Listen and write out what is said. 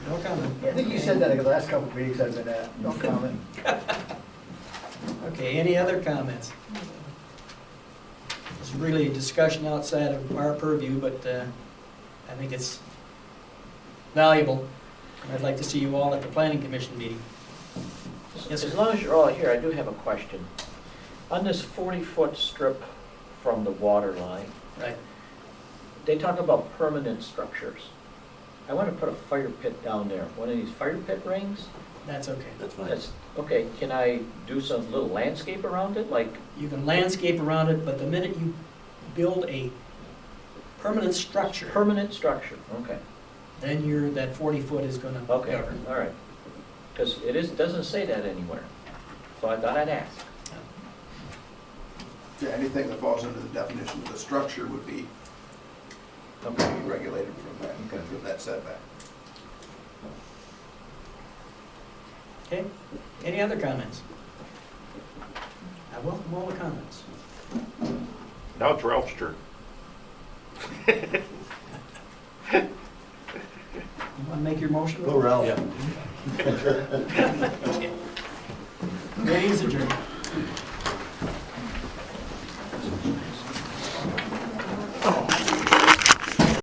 comment. I think you said that the last couple of meetings I've been at, no comment. Okay, any other comments? It's really a discussion outside of our purview, but uh, I think it's valuable. And I'd like to see you all at the planning commission meeting. Yes, As sir. long as you're all here, I do have a question. On this 40-foot strip from the water line, Right. they talk about permanent structures. I want to put a fire pit down there, one of these fire pit rings? That's okay. That's fine. That's, okay, can I do some little landscape around it, like, You can landscape around it, but the minute you build a permanent structure, permanent structure? Okay, then you're, that 40-foot is going to okay, cover. all right. Because it is, doesn't say that anywhere, so I thought I'd ask. Yeah, anything that falls under the definition of the structure would be, would be Okay. regulated from that, from that setback. Okay, any other comments? I welcome all the comments. Now it's Ralph's turn. You want to make your motion? Go Ralph. Meeting's adjourned.